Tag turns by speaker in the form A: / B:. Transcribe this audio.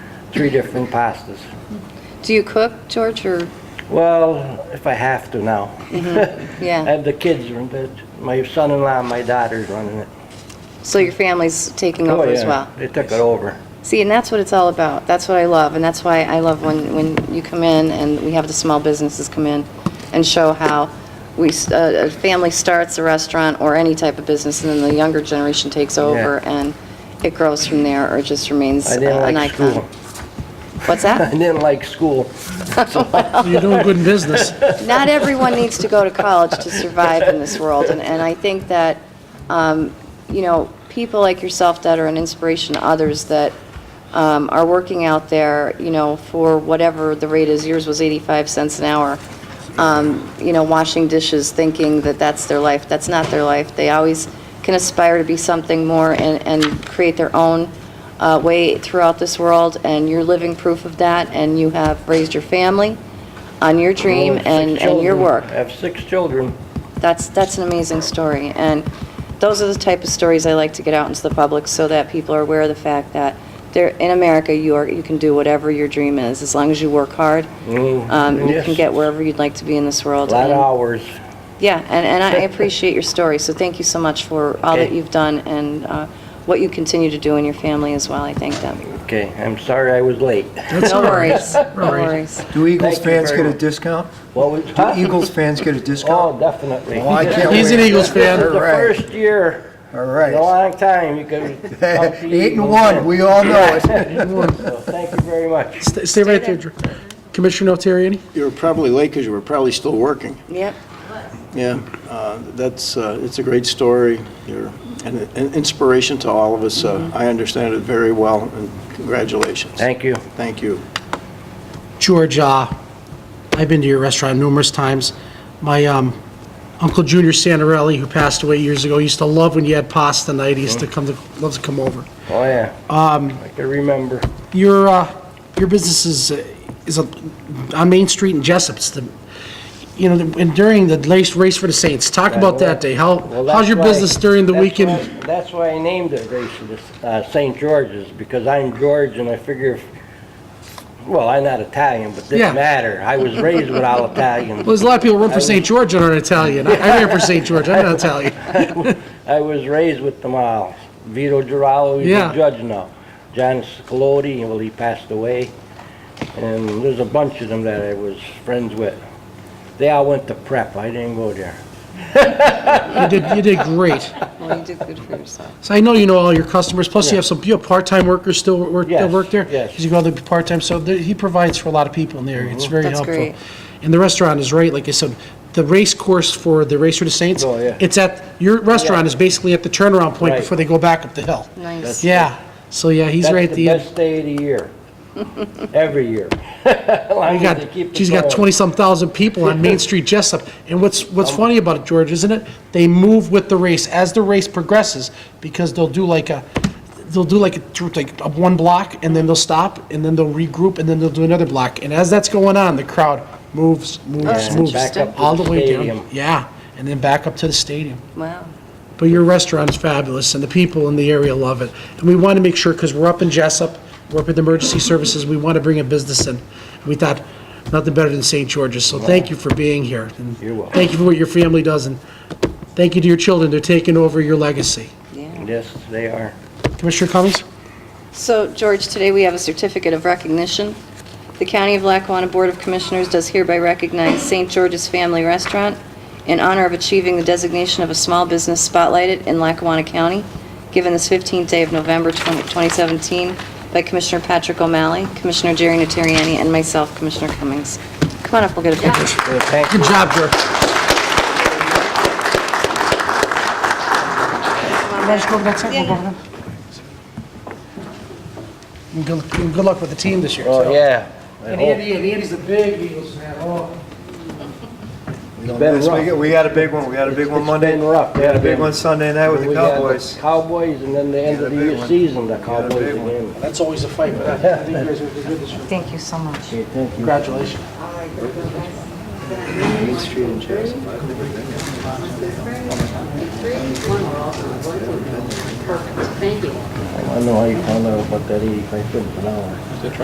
A: three different pastas.
B: Do you cook, George, or,
A: Well, if I have to now. I
B: Mm-hmm. yeah?
A: have the kids, run it. my son-in-law and my daughter's running it.
B: So your family's taking
A: Oh
B: over as
A: yeah,
B: well?
A: They took it over.
B: See, and that's what it's all about. That's what I love, and that's why I love when, when you come in and we have the small businesses come in and show how we, s- uh, a a family starts a restaurant or any type of business, and then the younger generation takes over, and it grows from there, or it just remains
A: I
B: uh,
A: didn't
B: an
A: like
B: icon.
A: school.
B: What's
A: I
B: that?
A: didn't like school.
C: You're doing good in business.
B: Not everyone needs to go to college to survive in this world, and, and I think that, um, you know, people like yourself that are an inspiration to others that um, are working out there, you know, for whatever the rate is, yours was 85 cents an hour, um, you know, washing dishes, thinking that that's their life, that's not their life. They always can aspire to be something more and, and create their own uh, way throughout this world, and you're living proof of that, and you have raised your family on your dream
A: Six
B: and, and your
A: Oh, children.
B: work.
A: I have six children.
B: That's, that's an amazing story, and those are the type of stories I like to get out into the public so that people are aware of the fact that there, in America, you are, you can do whatever your dream is, as long as you work hard.
A: Mm,
B: Um, you can
A: yes.
B: get wherever you'd like to be in this
A: A
B: world.
A: lot of
B: and-
A: hours.
B: Yeah, and, and I appreciate your story, so thank you so much for all that
A: Okay.
B: you've done and, uh, what you continue to do in your family as well, I thank them.
A: Okay, I'm sorry I was late.
C: That's
B: No
C: all right.
B: worries, no
C: All right.
B: worries.
D: Do Eagles
A: Thank you
D: fans
A: very
D: get a
A: much.
D: discount?
A: What was,
D: Do
A: huh?
D: Eagles fans get a discount?
A: Oh, definitely.
D: Oh, I can't
C: He's an
D: wait.
C: Eagles fan.
A: This is the
D: All right.
A: first year
D: All
A: in a
D: right.
A: long time you could. come to
D: Eight and
A: Eagles.
D: one, we all know it.
A: So Thank you very much.
C: Stay stay right there, Dr- Commissioner Notarianni.
E: You were probably late because you were probably still working.
B: Yep,
E: Yeah, uh, that's, uh, it's a great story. You're an an inspiration to all of us. Uh, I understand it very well, and congratulations.
A: Thank you.
E: Thank you.
C: George, uh, I've been to your restaurant numerous times. My um, Uncle Junior Santarelli, who passed away years ago, used to love when you had pasta night. He used to come, to loves to come over.
A: Oh, yeah. Um. I can remember.
C: Your, uh, your business is, uh, is a- on Main Street in Jessup. It's the, you know, the- and during the race, race for the Saints. Talk about that day. How,
A: Well,
C: how's
A: that's
C: your
A: why-
C: business during the
A: that's
C: weekend?
A: why- That's why I named it Race of the- uh, St. George's, because I'm George and I figure, if- well, I'm not Italian, but
C: Yeah.
A: didn't matter. I was raised with all Italians.
C: Well, there's a lot of people run for St. George and are Italian. I I ran for St. George. I'm not Italian.
A: I was raised with them all. Vito Giraldo, he's
C: Yeah.
A: a judge now. John Scalodi, well, he passed away. And there's a bunch of them that I was friends with. They all went to prep. I didn't go there.
C: You did, you did great.
B: well, you did good for yourself.
C: So I know you know all your customers, plus you have some, you have part-time workers still work, that
A: Yes,
C: work there?
A: yes.
C: Because you go there part-time, so there- he provides for a lot of people in the area.
A: Mm-hmm.
C: It's very
B: That's
C: helpful.
B: great.
C: And the restaurant is right, like I said, the race course for the Racer to Saints.
A: Oh, yeah.
C: It's at, your restaurant is basically at the turnaround point
A: Right.
C: before they go back up the hill.
B: Nice.
C: Yeah, so yeah, he's right at the
A: That's
C: end.
A: the best day of the year. Every year.
C: You
A: Long as they
C: got,
A: keep it
C: she's got
A: going.
C: 20-some thousand people on Main Street Jessup. And what's,
A: Um,
C: what's funny about it, George, isn't it? They move with the race as the race progresses because they'll do like a, they'll do like a, through like a one block and then they'll stop and then they'll regroup and then they'll do another block. And as that's going on, the crowd moves, moves,
B: that's
C: moves.
A: interesting. Back up to
C: All the
A: the
C: way
A: stadium.
C: down. Yeah, and then back up to the stadium.
B: Wow.
C: But your restaurant is fabulous, and the people in the area love it. And we want to make sure, because we're up in Jessup, we're up in emergency services, we want to bring a business in. We thought, nothing better than St. George's, so thank you for being here. and
A: You're welcome.
C: Thank you for what your family does, and thank you to your children, they're taking over your legacy.
A: Yes, they are.
C: Commissioner Cummings?
B: So, George, today we have a certificate of recognition. The County of Lackawanna Board of Commissioners does hereby recognize St. George's Family Restaurant in honor of achieving the designation of a small business spotlighted in Lackawanna County, given this 15th day of November 20 2017 by Commissioner Patrick O'Malley, Commissioner Jerry Natariani, and myself, Commissioner Cummings. Come on up, we'll get a picture.
A: So Thank you.
C: Good job, George. Let's go over that side, we'll go over them. And Good and good luck with the team this year.
A: Oh,
C: too.
A: yeah. I
C: And
A: hope.
C: Andy, and Andy's a big Eagles fan, oh.
A: been
D: Yes, we
A: rough.
D: got- We had a big one, we had a big one
A: It's
D: Monday.
A: been rough.
D: We had a big
A: Yeah.
D: one Sunday night with the
A: We had
D: Cowboys.
A: Cowboys, and then the end
D: Yeah,
A: of the
D: the big
A: year
D: one.
A: season, the
D: Yeah, the
A: Cowboys
D: big one.
A: again.
C: That's always a fight, but I I think you guys are gonna do good this year.
B: Thank you so much.
A: Okay, thank you.
C: Congratulations.
A: I don't know how you found out about that eighty-five cents an hour.